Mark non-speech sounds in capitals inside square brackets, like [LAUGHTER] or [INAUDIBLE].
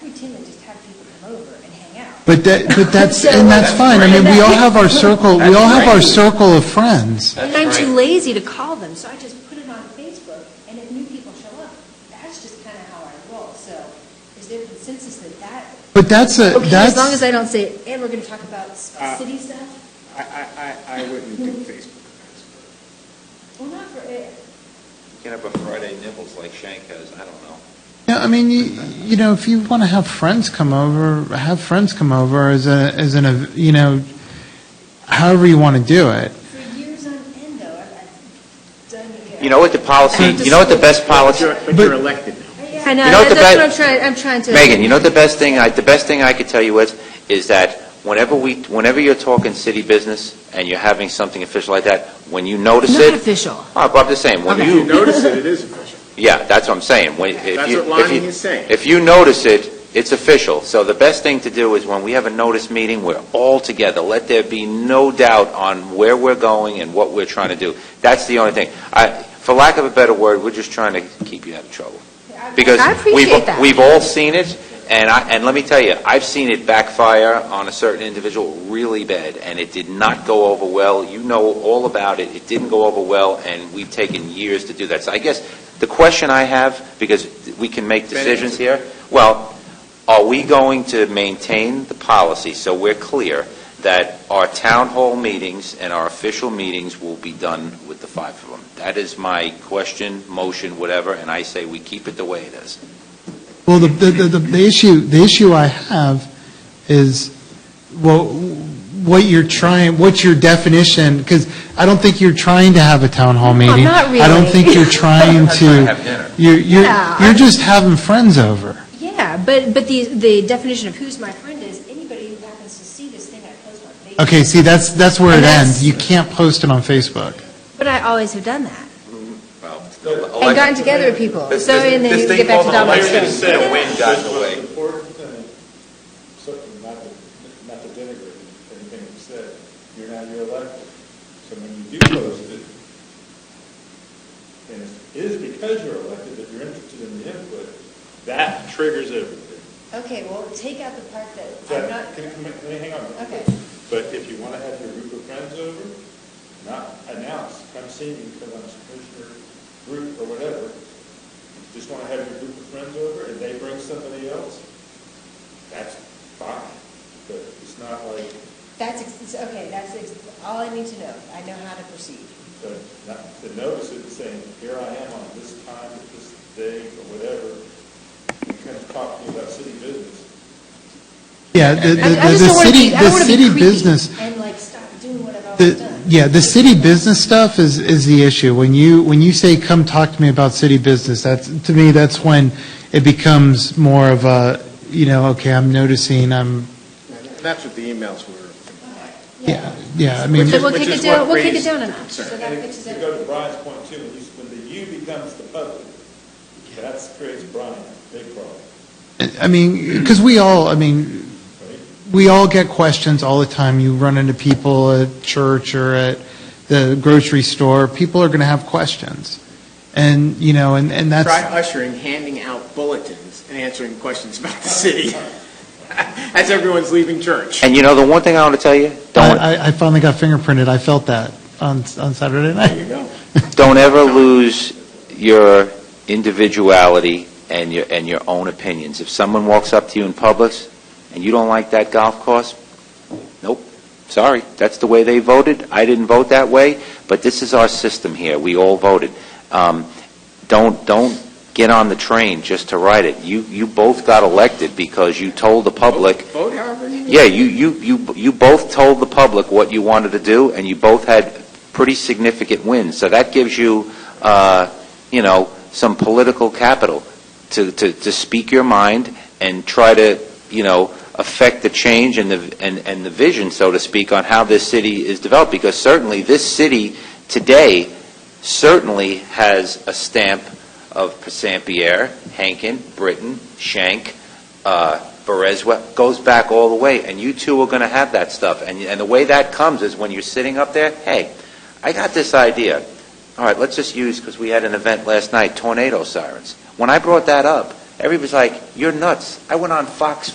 team and just have people come over and hang out. But that, but [LAUGHS] that's, and uh, that's fine. I mean, we all have our circle, we all have our circle of friends. And I'm too lazy to call them, so I just put it on Facebook, and if new people show up, that's just kind of how I roll. So is there consensus that that, But that's a, okay, as long as that's, I don't say, and we're going to talk about s- Uh, city stuff? I, I, I I wouldn't do Facebook events. Well, not for, eh, You can have a Friday nibbles like Shank has, I don't know. Yeah, I mean, you, you know, if you want to have friends come over, have friends come over as a, as an, ev- you know, however you want to do it. for years on end, though, I've I've done it. You know what the policy, you know what the best policy, But you're- But you're elected now. I know, you know that- what the that's bad- what I'm trying, I'm trying to. Megan, you know the best thing, I the best thing I could tell you is, is that whenever we, whenever you're talking city business and you're having something official like that, when you notice Not it, official. Oh, but I'm just saying, when If you, you notice it, it is official. yeah, that's what I'm saying. When- if That's you- what Lonnie if you- is saying. If you notice it, it's official. So the best thing to do is when we have a notice meeting, we're all together. Let there be no doubt on where we're going and what we're trying to do. That's the only thing. I, for lack of a better word, we're just trying to keep you out of trouble. Because I appreciate we've- that. We've all seen it, and I, and let me tell you, I've seen it backfire on a certain individual really bad, and it did not go over well. You know all about it. It didn't go over well, and we've taken years to do that. So I guess the question I have, because we can make decisions here, well, are we going to maintain the policy so we're clear that our town hall meetings and our official meetings will be done with the five of them? That is my question, motion, whatever, and I say we keep it the way it is. Well, the, the, the- the issue, the issue I have is, well, what you're trying, what's your definition? Because I don't think you're trying to have a town hall No, meeting. Oh, not I don't really. think you're [LAUGHS] trying to. trying to have dinner. You're, you're, Yeah. you're just having friends over. Yeah, but, but the, the definition of who's my friend is anybody who happens to see this thing I post on Facebook. Okay, see, that's, that's where it And that's- ends. You can't post it on Facebook. But I always have done that, Well, uh, and gotten together with people, Oh, This- so, this- and then this you thing get back to called Dominic. election Stone. said The wind got in the way. Most important thing, certainly not to, not to denigrate anything you said, you're not, you're elected. So when you do post it, and it is because you're elected that you're interested in the input, that triggers everything. Okay, well, take out the part that I'm That, not, can, can, can, hang on. Okay. But if you want to have your group of friends over, not announce, come see me because I'm a commissioner group or whatever. Just want to have your group of friends over and they bring somebody else, that's fine. But it's not like, that's, ex- it's- okay, that's ex- all I need to know, I know how to proceed. the, not, the notice is saying, here I am on this time, at this day or whatever. You kind of talk to me about city business. Yeah, the, the, I- I the just don't wanna city, be- I the don't wanna be city creepy business. And like, stop doing what I've always The, done. yeah, the city business stuff is, is the issue. When you, when you say, come talk to me about city business, that's, to me, that's when it becomes more of a, you know, okay, I'm noticing, I'm, That's what the emails were. yeah, yeah, I mean, So we'll which kick is it down, what we'll kick it raised down a the notch, so concern. that And fixes To it. go to Brian's point too, when you, when the you becomes the public, that creates Brian, big problem, I mean, because we all, I mean, right? we all get questions all the time. You run into people at church or at the grocery store, people are going to have questions. And, you know, and, and that's. Try ushering, handing out bulletins and answering questions about the city [LAUGHS] as everyone's leaving church. And you know, the one thing I want to tell you, don't, I, I- I finally got fingerprinted. I felt that on, on Saturday night. There you go. don't ever lose your individuality and your, and your own opinions. If someone walks up to you in Publix and you don't like that golf course, nope, sorry, that's the way they voted. I didn't vote that way, but this is our system here. We all voted. Um, don't, don't get on the train just to ride it. You, you both got elected because you told the public Vote however you Yeah, you, you, you, you both told the public what you wanted to do, and you both had pretty significant wins. So that gives you, uh, you know, some political capital to, to, to speak your mind and try to, you know, affect the change and the, and, and the vision, so to speak, on how this city is developed. Because certainly, this city today certainly has a stamp of Passambierre, Hankin, Britton, Shank, uh, Perez what- goes back all the way, and you two are going to have that stuff. And, and the way that comes is when you're sitting up there, hey, I got this idea. All right, let's just use, because we had an event last night, tornado sirens. When I brought that up, Everybody's like, you're nuts. I went on Fox